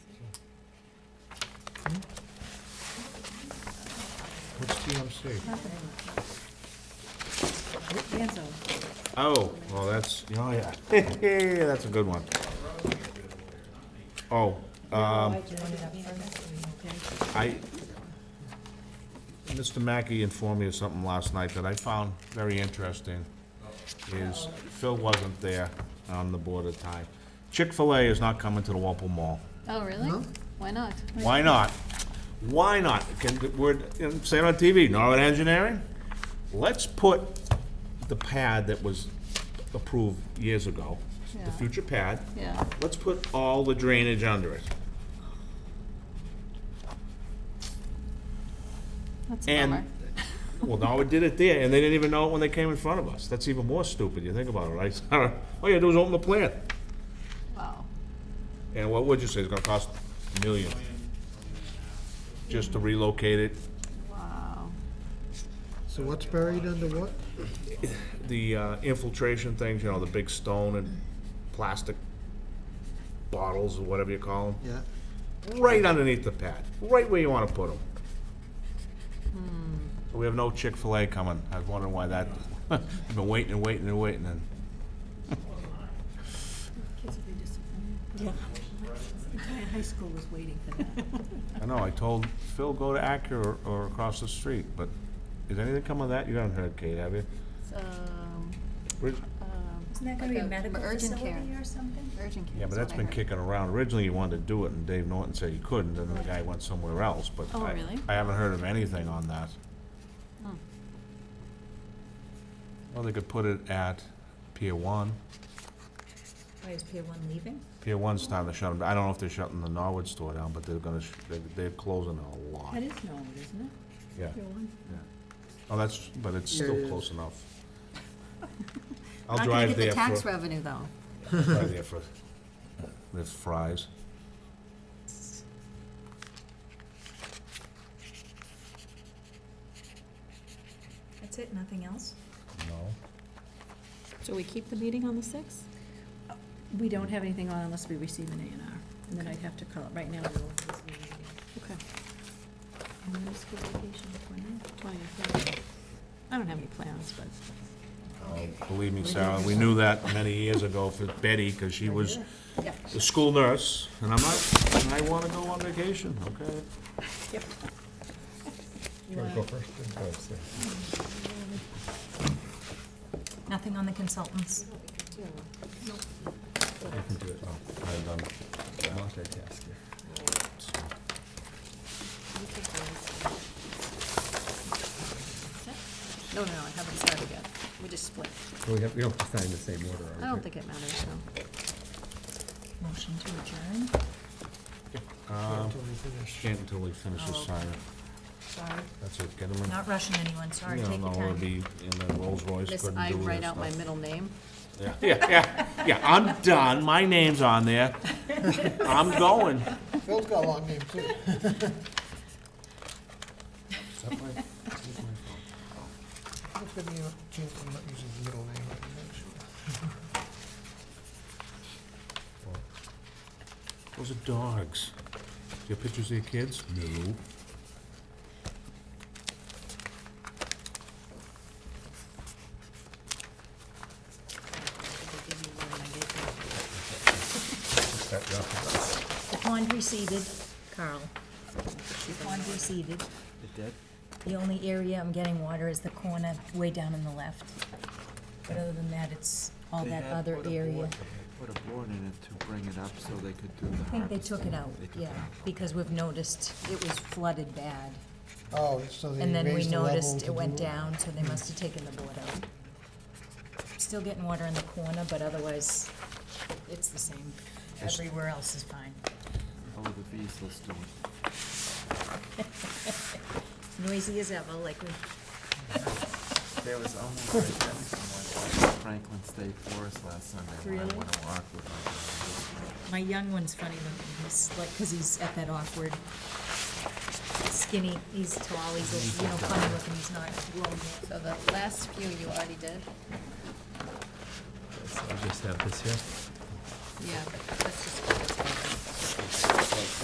CMC. Danzo. Oh, well, that's, oh, yeah, that's a good one. Oh, um, I, Mr. Mackey informed me of something last night that I found very interesting, is Phil wasn't there on the board at the time. Chick-fil-A is not coming to the Walpole Mall. Oh, really? Why not? Why not? Why not? Can, we're, I'm saying on TV, Norwood Engineering, let's put the pad that was approved years ago, Yeah. the future pad, Yeah. let's put all the drainage under it. That's a bummer. And, well, Norwood did it there, and they didn't even know it when they came in front of us. That's even more stupid, you think about it, right? All you had to do was open the plant. Wow. And what would you say, it's gonna cost a million? Just to relocate it, Wow. So what's buried under what? the uh, infiltration things, you know, the big stone and plastic bottles or whatever you call Yeah, them, right underneath the pad, right where you want to put them. We have no Chick-fil-A coming. I was wondering why that, I've been waiting and waiting and waiting and. Kids will be disappointed. The entire high school was waiting for that. I know, I told Phil, go to Acura or- or across the street, but is anything coming of that? You haven't heard, Kate, have you? It's, um, Where's- um, Isn't that gonna be like a a medical urgent facility care. or something? urgent care. Yeah, but is what that's I been heard. kicking around. Originally, you wanted to do it, and Dave Norton said he couldn't, and then the guy went somewhere else, but Oh, I- really? I haven't heard of anything on that. Hmm. Well, they could put it at Pier One. Why is Pier One leaving? Pier One's time to shut them, I don't know if they're shutting the Norwood store down, but they're gonna, sh- they- they're closing a lot. That is Norwood, isn't it? Yeah, Your one? oh, that's, but it's Yeah, it still is. close enough. I'll Not gonna drive get the there tax for, revenue, though. drive there for, uh, there's fries. That's it, nothing else? No. So we keep the meeting on the sixth? Uh, We don't have anything on unless we receive an A and R, and then I'd have to call it. Right now, we'll have this meeting. Okay. And then school vacation, twentieth. 20th, yeah. I don't have any plans, but Oh, Believe me, Sarah, we knew that many years ago for Betty, because she was the school nurse, and I'm like, "And I want to go on vacation, okay? Nothing on the consultants? I had done no, no, no, I haven't started yet. We just split. We have, we don't have to sign the same order, I don't think it matters, though. Motion to adjourn? until we finish. Can't until we finish this sign. Sorry, That's it, get them in. Oh. not rushing anyone, sorry, You take know, your it'll time. be in the Rolls Royce, Miss, couldn't I do write this out my stuff. middle name. Yeah, yeah, yeah, yeah, I'm done, my name's on there. I'm going. Phil's got a long name too. It's gonna be a chance I'm not using his middle name, I can make sure. Those are dogs. Do you have pictures of your kids? No. The pond receded, Carl. The pond receded. It did? The only area I'm getting water is the corner way down on the left. But other than that, it's all that other area. Put a board in it to bring it up so they could do the I harvesting. think they took it out, They took it yeah, because we've noticed it was flooded bad. Oh, so they And then we raised the level noticed to it went do down, so they must have taken the board out. Still getting water in the corner, but otherwise, it's the same. Everywhere else is fine. Oh, the bees, let's do it. Noisy as ever, like we, There was almost like that someone at Franklin State Forest last Sunday when I Really? went to walk with my daughter. my young one's funny looking, he's like, because he's at that awkward skinny, he's tall, he's, you know, funny looking, he's not long yet. So the last few you already did? I just have this here. Yeah, that's just.